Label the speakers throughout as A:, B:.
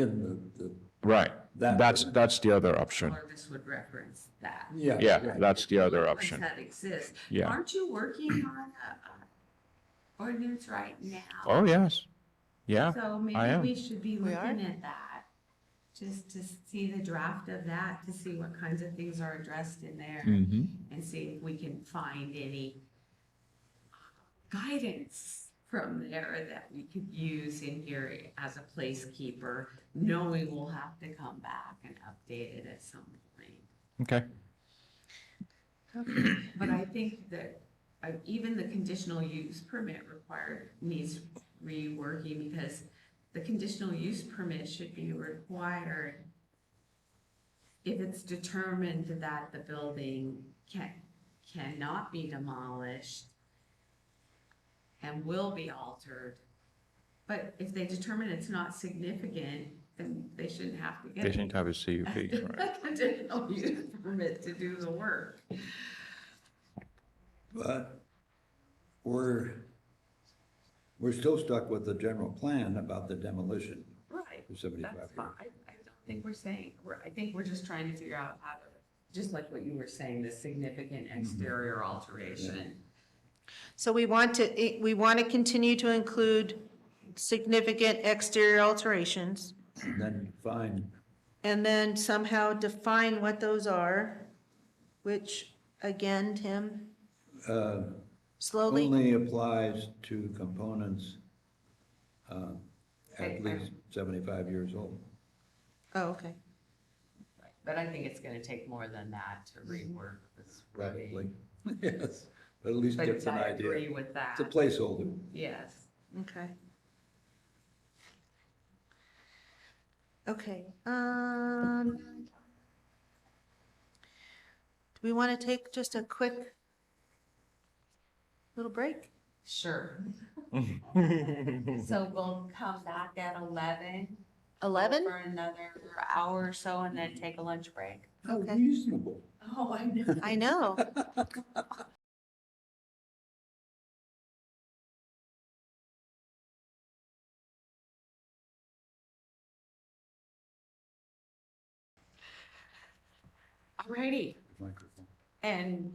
A: in the, the,
B: Right,
A: That-
B: that's, that's the other option.
C: Jarvis would reference that.
A: yeah.
B: Yeah, that's the other option.
C: That exists.
B: Yeah.
C: Aren't you working on a a ordinance right now?
B: Oh, yes, yeah.
C: So
B: I
C: maybe
B: am.
C: we should be
D: We are.
C: looking at that, just to see the draft of that, to see what kinds of things are addressed in there
B: Mm-hmm.
C: and see if we can find any guidance from there that we could use in here as a placekeeper, knowing we'll have to come back and update it at some point.
B: Okay,
D: Okay.
C: But I think that uh, even the conditional use permit required needs reworking because the conditional use permit should be required if it's determined that the building can, cannot be demolished and will be altered. But if they determine it's not significant, then they shouldn't have to get
B: they shouldn't have a CUP, right?
C: a conditional use permit to do the work.
A: But we're, we're still stuck with the general plan about the demolition
C: Right.
A: of seventy-five
C: That's fine.
A: years.
C: I, I don't think we're saying, we're, I think we're just trying to figure out how to, just like what you were saying, the significant
A: Mm-hmm.
C: exterior alteration.
D: So we want to, eh, we want to continue to include significant exterior alterations
A: And then find,
D: and then somehow define what those are, which again, Tim,
A: uh,
D: slowly.
A: only applies to components, um,
C: Okay.
A: at least seventy-five years old.
D: Oh, okay.
C: But I think it's gonna take more than that to rework this. wording.
A: Probably. Yes, but at least
C: But
A: gives an
C: I
A: idea.
C: agree with that,
A: It's a placeholder.
C: yes.
D: Okay. Okay, um. Do we want to take just a quick little break?
C: Sure. So we'll come back at eleven
D: 11?
C: for another hour or so and then take a lunch break.
A: How
D: Okay.
A: reasonable.
C: Oh, I know.
D: I know.
C: Alrighty,
A: Microphone.
C: and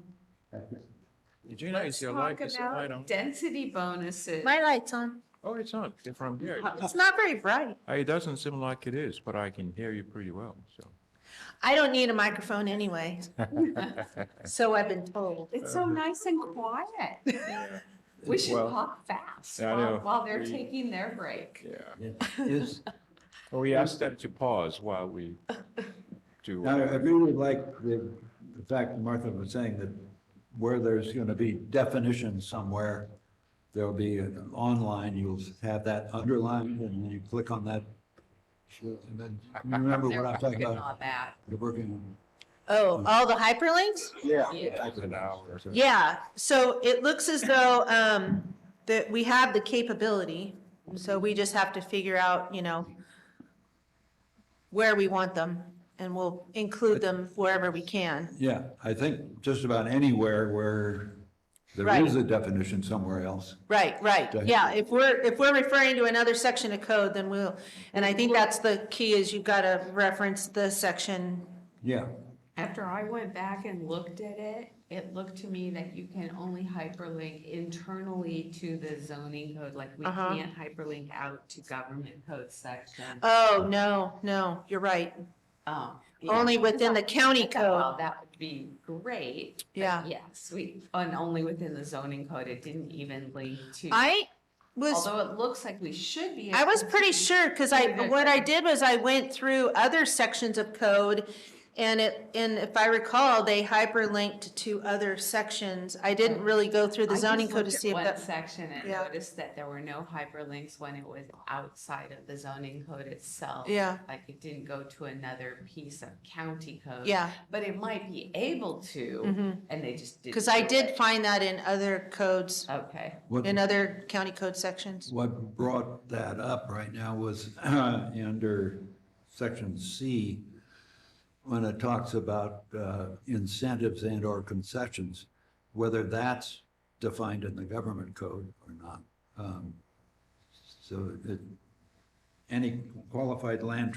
B: Did you notice your light is light on?
C: density bonuses.
D: My light's on.
B: Oh, it's on, It's from here.
D: It's not very bright.
B: It doesn't seem like it is, but I can hear you pretty well, so.
D: I don't need a microphone anyway, so I've been told.
C: It's so
A: Uh-huh.
C: nice and quiet.
B: Yeah,
C: We should
B: Well,
C: talk fast
B: I know.
C: while, while they're
B: We-
C: taking their break.
B: yeah.
A: Is,
B: Well, we asked them to pause while we do.
A: Now, I
B: whatever.
A: really like the, the fact that Martha was saying that where there's gonna be definitions somewhere, there'll be an online, you'll have that underlined and then you click on that. And then, you remember
C: They're
A: what I'm talking
C: working
A: about?
C: on that.
A: You're working on.
D: Oh, all the hyperlinks?
A: Yeah.
C: Yeah.
B: An hour.
D: Yeah, so it looks as though, um, that we have the capability, so we just have to figure out, you know, where we want them, and we'll include them wherever we can.
A: Yeah, I think just about anywhere where there
D: Right.
A: is a definition somewhere else.
D: Right, right, yeah, if we're, if we're referring to another section of code, then we'll, and I think that's the key, is you've got to reference the section.
A: Yeah,
C: After I went back and looked at it, it looked to me that you can only hyperlink internally to the zoning code. Like we
D: Uh-huh.
C: can't hyperlink out to government code section.
D: Oh, no, no, you're right,
C: Um, yeah.
D: only within the county code,
C: Well, that would be great. but
D: yeah.
C: Yes, we, and only within the zoning code. It didn't even link to.
D: I was
C: Although it looks like we should be.
D: I was pretty sure, because I, what I did was I went through other sections of code, and it, and if I recall, they hyperlinked to other sections. I didn't really go through the
C: I just
D: zoning code to
C: looked at
D: see if
C: One
D: that,
C: section and
D: Yeah.
C: noticed that there were no hyperlinks when it was outside of the zoning code itself.
D: yeah,
C: Like it didn't go to another piece of county code.
D: yeah.
C: But it might be able to,
D: mhm.
C: and they just didn't.
D: Cause I
C: do
D: did
C: it.
D: find that in other codes,
C: Okay,
A: what,
D: in other county code sections.
A: what brought that up right now was under section C, when it talks about uh, incentives and or concessions, whether that's defined in the government code or not. Um, So it, any qualified land